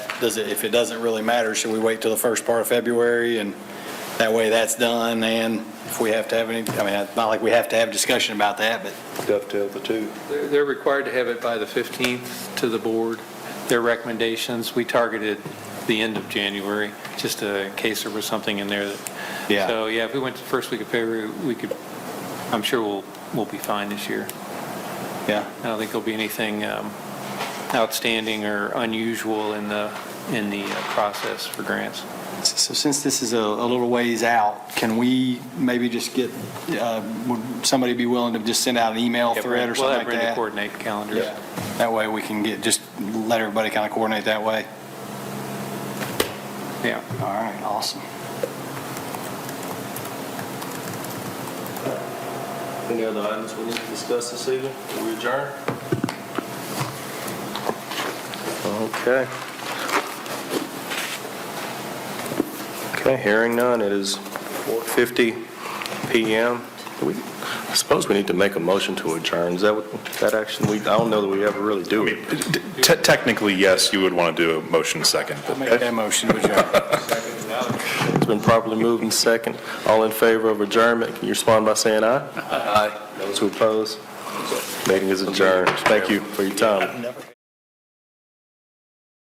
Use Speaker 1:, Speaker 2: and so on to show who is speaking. Speaker 1: does it, if it doesn't really matter, should we wait till the first part of February? And that way that's done, and if we have to have any, I mean, it's not like we have to have a discussion about that, but
Speaker 2: dovetail the two.
Speaker 3: They're they're required to have it by the 15th to the board, their recommendations. We targeted the end of January, just uh, in case there was something in there that,
Speaker 1: yeah.
Speaker 3: so, yeah, if we went to the first week of February, we could, I'm sure we'll, we'll be fine this year.
Speaker 1: Yeah.
Speaker 3: I don't think there'll be anything um, outstanding or unusual in the, in the uh, process for grants.
Speaker 1: So since this is a a little ways out, can we maybe just get, uh, would somebody be willing to just send out an email thread or something like
Speaker 3: We'll have Brenda
Speaker 1: that?
Speaker 3: coordinate the calendars.
Speaker 1: Yeah. That way we can get, just let everybody kind of coordinate that way.
Speaker 3: Yeah.
Speaker 1: All right, awesome.
Speaker 4: Any other items we need to discuss this evening? We adjourn?
Speaker 2: Okay. Okay, hearing none, it is 4:50 PM. Do we- I suppose we need to make a motion to adjourn, is that what, that action, we, I don't know that we ever really do. it.
Speaker 5: Te- Technically, yes, you would want to do a motion second, but
Speaker 1: I'll make that motion to adjourn.
Speaker 2: It's been properly moved and second. All in favor of adjournment, can you respond by saying aye? Aye. Those who oppose, meeting is adjourned. Thank you for your time.